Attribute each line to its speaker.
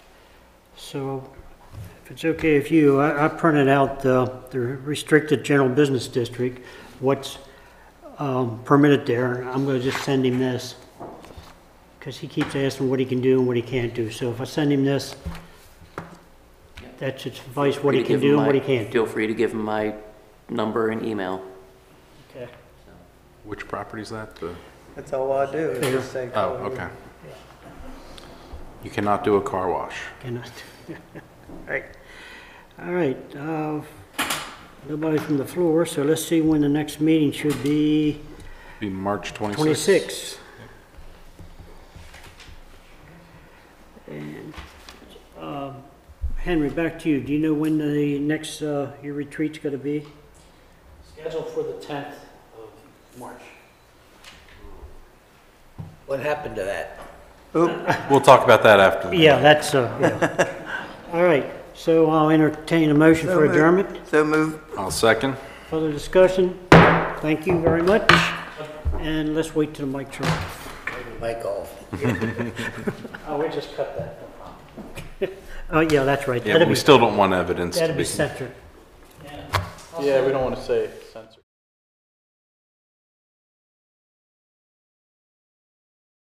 Speaker 1: So if it's okay with you, I I printed out the the restricted general business district, what's um, permitted there. I'm going to just send him this because he keeps asking what he can do and what he can't do. So if I send him this, that should suffice what he
Speaker 2: Free to
Speaker 1: can
Speaker 2: give him
Speaker 1: do and
Speaker 2: my-
Speaker 1: what he can't do.
Speaker 2: Feel free to give him my number and email.
Speaker 1: Okay.
Speaker 3: Which property is that? The,
Speaker 4: That's all I do, is just say.
Speaker 3: oh, okay. You cannot do a car wash.
Speaker 1: Cannot. All right. All right. uh, Nobody from the floor, so let's see when the next meeting should be.
Speaker 3: Be March 26th.
Speaker 1: 26. And um, Henry, back to you. Do you know when the next, uh, your retreat's going to be?
Speaker 5: Scheduled for the 10th of March. What happened to that?
Speaker 3: We'll talk about that after. the-
Speaker 1: Yeah, that's, uh, yeah. All right, so I'll entertain a motion
Speaker 4: So
Speaker 1: for
Speaker 4: moved.
Speaker 1: adjournment.
Speaker 4: So move
Speaker 3: I'll second.
Speaker 1: Further discussion? Thank you very much. And let's wait till the mic turns.
Speaker 5: Mike off. Oh, we just cut that. no problem.
Speaker 1: Oh, yeah, that's right.
Speaker 3: Yeah, but
Speaker 1: That'd
Speaker 3: we
Speaker 1: be,
Speaker 3: still don't want evidence to
Speaker 1: that'd be
Speaker 3: be.
Speaker 1: centered.
Speaker 6: Yeah, we don't want to say.